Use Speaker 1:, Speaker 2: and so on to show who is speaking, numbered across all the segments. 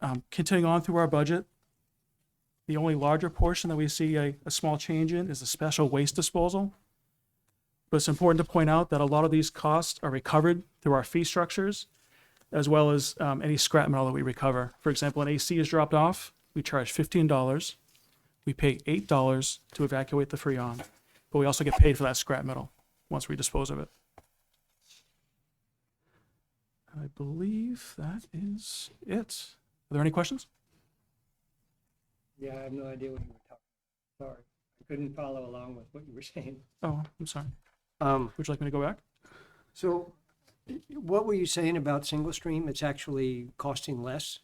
Speaker 1: Um, Continuing on through our budget, the only larger portion that we see a, a small change in is the special waste disposal. But it's important to point out that a lot of these costs are recovered through our fee structures, as well as um, any scrap metal that we recover. For example, an AC is dropped off, we charge fifteen dollars. We pay eight dollars to evacuate the freon, but we also get paid for that scrap metal once we dispose of it. I believe that is it. Are there any questions?
Speaker 2: Yeah, I have no idea what you were talking. Sorry, I couldn't follow along with what you were saying.
Speaker 1: Oh, I'm sorry.
Speaker 2: Um,
Speaker 1: Would you like me to go back?
Speaker 2: so what were you saying about single stream? It's actually costing less?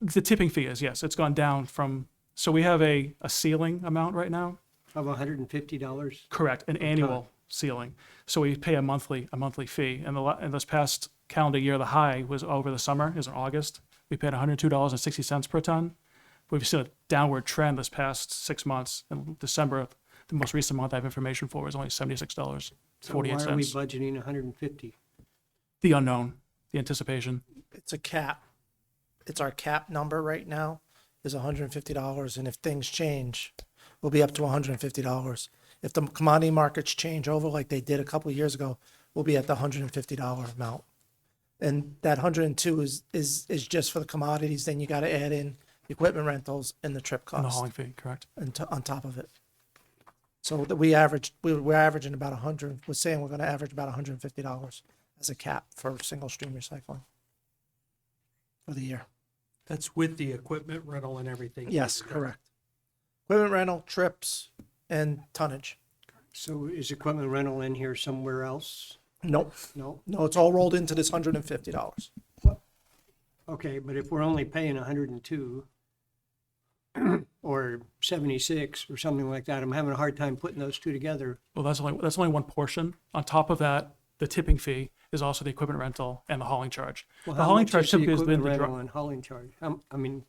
Speaker 1: The tipping fee is, yes, it's gone down from, so we have a, a ceiling amount right now.
Speaker 2: Of hundred and fifty dollars?
Speaker 1: Correct, an annual ceiling. So we pay a monthly, a monthly fee. And the, la- and this past calendar year, the high was over the summer, is in August. We paid hundred and two dollars and sixty cents per ton. We've seen a downward trend this past six months. In December, the most recent month I have information for is only seventy-six dollars, forty-eight
Speaker 2: Why are we
Speaker 1: cents.
Speaker 2: budgeting hundred and fifty?
Speaker 1: The unknown, the anticipation.
Speaker 3: it's a cap. It's our cap number right now is hundred and fifty dollars, and if things change, we'll be up to hundred and fifty dollars. If the commodity markets change over like they did a couple of years ago, we'll be at the hundred and fifty dollar amount. And that hundred and two is, is, is just for the commodities, then you gotta add in equipment rentals and the trip
Speaker 1: And the
Speaker 3: cost
Speaker 1: hauling fee, correct?
Speaker 3: and to, on top of it. So that we average, we, we're averaging about a hundred, we're saying we're gonna average about hundred and fifty dollars as a cap for single stream recycling for the year.
Speaker 4: That's with the equipment rental and everything.
Speaker 3: Yes, correct. Equipment rental, trips, and tonnage.
Speaker 2: So is equipment rental in here somewhere else?
Speaker 3: Nope,
Speaker 2: No?
Speaker 3: no, it's all rolled into this hundred and fifty dollars.
Speaker 2: Okay, but if we're only paying hundred and two or seventy-six or something like that, I'm having a hard time putting those two together.
Speaker 1: Well, that's only, that's only one portion. On top of that, the tipping fee is also the equipment rental and the hauling charge. The
Speaker 2: Well, how
Speaker 1: hauling
Speaker 2: much
Speaker 1: charge
Speaker 2: is the
Speaker 1: typically has been
Speaker 2: equipment
Speaker 1: the
Speaker 2: rental
Speaker 1: dri-
Speaker 2: And hauling charge, Um, I mean,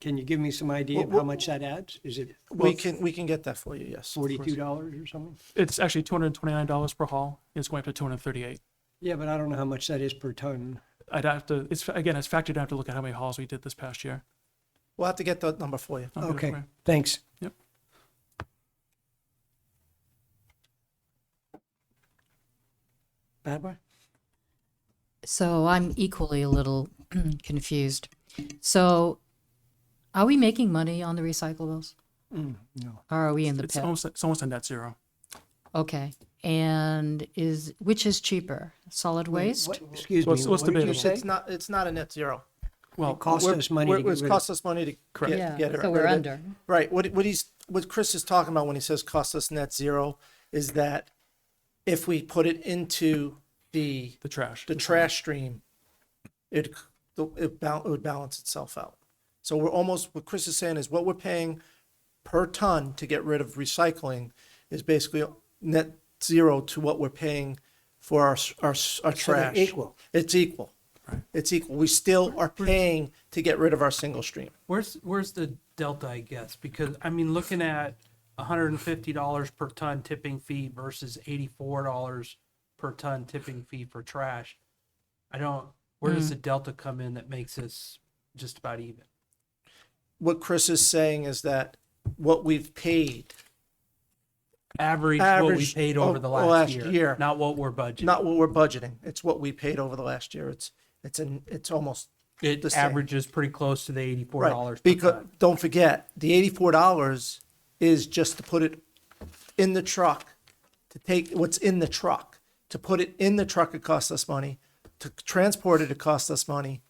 Speaker 2: can you give me some idea of
Speaker 3: Well,
Speaker 2: how much that adds? Is it
Speaker 3: We can, we can get that for you, yes. of course.
Speaker 2: forty-two dollars or something?
Speaker 1: It's actually two hundred and twenty-nine dollars per haul. It's going up to two hundred and thirty-eight.
Speaker 2: Yeah, but I don't know how much that is per ton.
Speaker 1: I'd have to, it's, again, it's factored, I have to look at how many hauls we did this past year.
Speaker 3: We'll have to get the number for you.
Speaker 1: I'll get it
Speaker 2: Okay,
Speaker 1: for you.
Speaker 2: thanks.
Speaker 3: Barbara?
Speaker 5: So I'm equally a little confused. So are we making money on the recyclables?
Speaker 2: no.
Speaker 5: Or are we in the
Speaker 1: Mm, It's
Speaker 5: pit?
Speaker 1: almost, it's almost a net zero.
Speaker 5: Okay. And is, which is cheaper, solid waste?
Speaker 2: What- Excuse me,
Speaker 1: What's- what's
Speaker 2: what did you
Speaker 1: debatable?
Speaker 2: say?
Speaker 3: It's not, it's not a net zero.
Speaker 1: Well,
Speaker 2: Cost
Speaker 3: We're-
Speaker 2: us money
Speaker 3: we're-
Speaker 2: to get
Speaker 3: It's
Speaker 2: rid of.
Speaker 3: cost us money to get,
Speaker 1: Correct.
Speaker 5: Yeah,
Speaker 3: get it.
Speaker 5: so we're
Speaker 3: rid of it.
Speaker 5: under.
Speaker 3: Right, what, what he's, what Chris is talking about when he says cost us net zero is that if we put it into the,
Speaker 1: the trash.
Speaker 3: the trash stream, it, it bal- it would balance itself out. So we're almost, what Chris is saying is what we're paying per ton to get rid of recycling is basically net zero to what we're paying for our, s- our, s- our
Speaker 2: So they're
Speaker 3: trash.
Speaker 2: Equal.
Speaker 3: It's equal. It's equal. We still are paying to get rid of our single stream.
Speaker 4: Where's, where's the delta, I guess? Because, I mean, looking at hundred and fifty dollars per ton tipping fee versus eighty-four dollars per ton tipping fee for trash. I don't, where
Speaker 3: Hmm.
Speaker 4: does the delta come in that makes us just about even?
Speaker 3: What Chris is saying is that what we've paid,
Speaker 4: Average what we
Speaker 3: Average
Speaker 4: paid over
Speaker 3: of-
Speaker 4: the
Speaker 3: last
Speaker 4: last year,
Speaker 3: year.
Speaker 4: not what we're budgeting.
Speaker 3: not what we're budgeting, it's what we paid over the last year. It's, it's an, it's almost
Speaker 4: It
Speaker 3: the same.
Speaker 4: averages pretty close to the eighty-four
Speaker 3: Right,
Speaker 4: dollars per
Speaker 3: because,
Speaker 4: ton.
Speaker 3: don't forget, the eighty-four dollars is just to put it in the truck, to take what's in the truck. To put it in the truck, it costs us money. To transport it, it costs us money.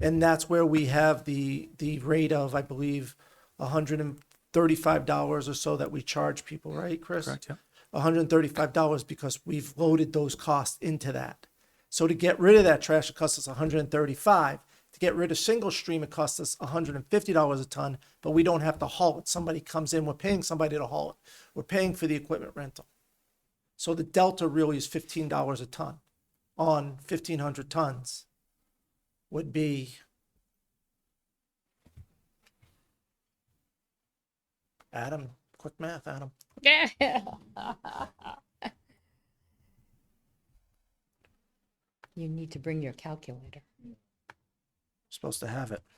Speaker 3: And that's where we have the, the rate of, I believe, hundred and thirty-five dollars or so that we charge people, right, Chris?
Speaker 1: Correct, yeah.
Speaker 3: hundred and thirty-five dollars because we've loaded those costs into that. So to get rid of that trash, it costs us hundred and thirty-five. To get rid of single stream, it costs us hundred and fifty dollars a ton, but we don't have to haul it. Somebody comes in, we're paying somebody to haul it. We're paying for the equipment rental. So the delta really is fifteen dollars a ton on fifteen hundred tons would be Adam, quick math, Adam.
Speaker 5: You need to bring your calculator.
Speaker 3: Supposed to have it.